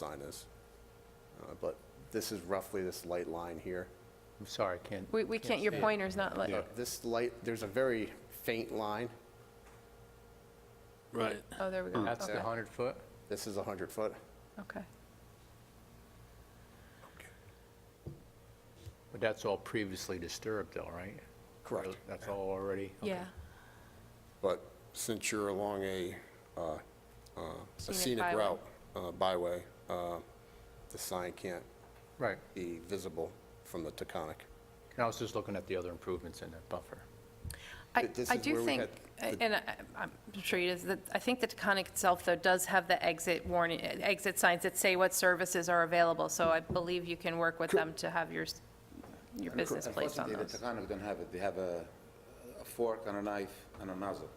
sign is. Uh, But this is roughly this light line here. Uh, I'm sorry, Ken. We, we can't, your see it. pointer's not like, Yeah. This light, there's a very faint line. Right. oh, there we go. That's the Okay. 100-foot? This is 100 foot. Okay. But that's all previously disturbed though, right? Correct. That's all already? okay. Yeah. But since you're along a, uh, uh, a Scenic scenic byway. route, uh, byway, uh, the sign can't Right. be visible from the Taconic. And I was just looking at the other improvements in that buffer. I, Th- this I is where do we think, uh, had and I- I'm sure it is, that, I think the Taconic itself, though, does have the exit warning, exit signs that say what services are available, so I believe you can work with them to have your, s- your business placed on Unfortunately, those. the Tacanos don't have it. They have a a fork and a knife and a nozzle.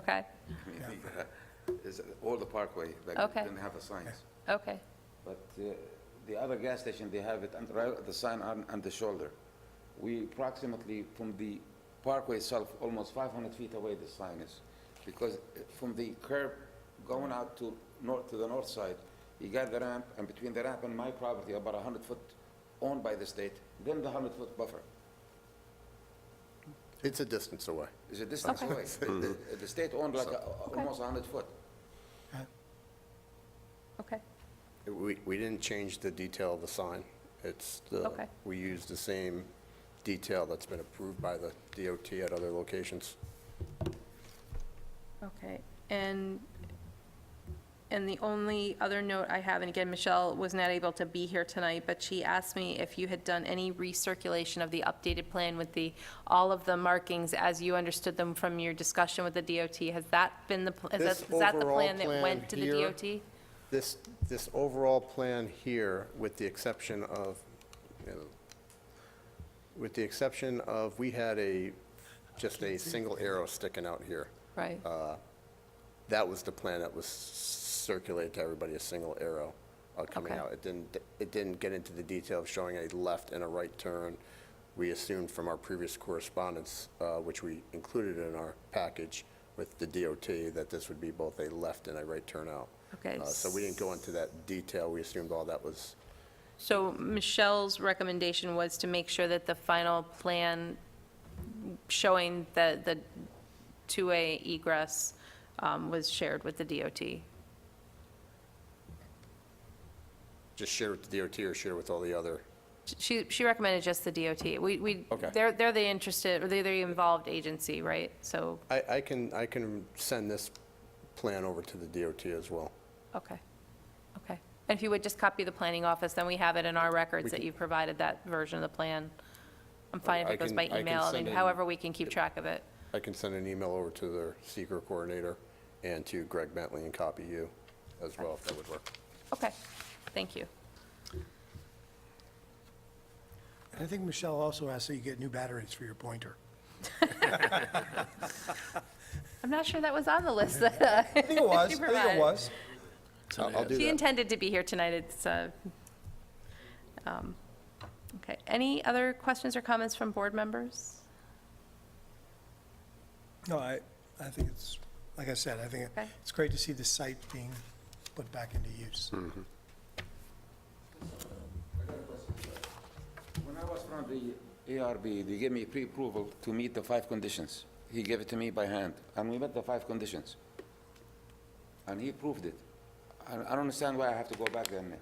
Okay, I mean, It's uh, all the parkway, like, Okay. didn't have the signs. okay, But uh, the other gas station, they have it, and right- the sign on, on the shoulder. We approximately, from the parkway itself, almost 500 feet away the sign is. Because uh, from the curb going out to north, to the north side, you got the ramp, and between the ramp and my property, about 100 foot owned by the state, then the 100 foot buffer. It's a distance away. It's a distance Okay. away. The- The state owned like a- a- almost 100 foot. okay, We, we didn't change the detail of the sign. It's the, Okay. we used the same detail that's been approved by the DOT at other locations. okay. And, and the only other note I have, and again, Michelle was not able to be here tonight, but she asked me if you had done any recirculation of the updated plan with the, all of the markings as you understood them from your discussion with the DOT. Has that been the, pl- is that, This is that the overall plan that plan went to the here- DOT? This, this overall plan here, with the exception of, you know, with the exception of, we had a, just a single arrow sticking out here. Right, uh, That was the plan that was circulated to everybody, a single arrow uh, coming Okay. out. It didn't, it didn't get into the detail of showing a left and a right turn. We assumed from our previous correspondence, uh, which we included in our package with the DOT, that this would be both a left and a right turn out. okay. Uh, So we didn't go into that detail. We assumed all that was, So Michelle's recommendation was to make sure that the final plan showing the, the two-way egress um, was shared with the DOT. just share with the DOT or share with all the other. She, she recommended just the DOT. We, we, Okay. they're, they're the interested, or they're the involved agency, right? So, I, I can, I can send this plan over to the DOT as well. okay, okay. And if you would just copy the planning office, then we have it in our records that you provided that version of the plan. I'm fine if I- I it goes can- by I can email, send and in- however we can keep track of it. I can send an email over to their seeker coordinator and to Greg Bentley and copy you as well, if that would work. Okay, thank you. And I think Michelle also asked that you get new batteries for your pointer. I'm not sure that was on the list that I think it was, You I think provided. it was. I'll I'll do She that. intended to be here tonight, it's, uh, um, okay. Any other questions or comments from board members? No, I, I think it's, like I said, I think Okay. it's great to see the site being put back into use. When I was from the ARB, they gave me pre-approval to meet the five conditions. He gave it to me by hand, and we met the five conditions. And he approved it. I I don't understand why I have to go back there and I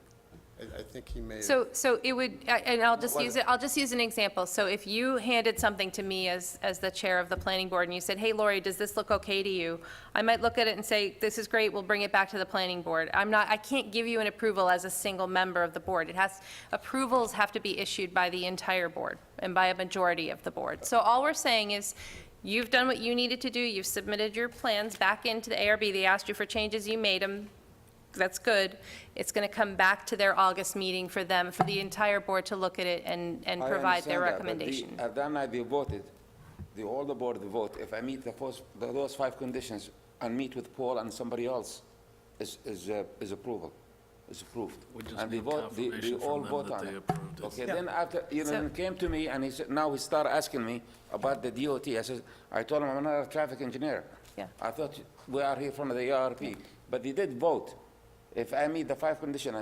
I think he may have So, so it would, I- and I'll just use it, I'll just use an example. So if you handed something to me as, as the chair of the planning board, and you said, hey, Lori, does this look okay to you? I might look at it and say, this is great, we'll bring it back to the planning board. I'm not, I can't give you an approval as a single member of the board. It has, approvals have to be issued by the entire board and by a majority of the board. So all we're saying is, you've done what you needed to do, you've submitted your plans back into the ARB, they asked you for changes, you made them, that's good. It's going to come back to their August meeting for them, for the entire board to look at it and, and I provide their understand that, but the- recommendation. At that night, they voted, the, all the board vote, if I meet the first, the- those five conditions and meet with Paul and somebody else, is, is, uh, is approval, is approved. We just And they need vote- they- they confirmation from all them vote that on they it. approved it. Okay, then after, you know, So- then came to me and he said, now he started asking me about the DOT. I said, I told him I'm not a traffic engineer. Yeah. I thought we are here from the ARP, but they did vote. If I meet the five condition, I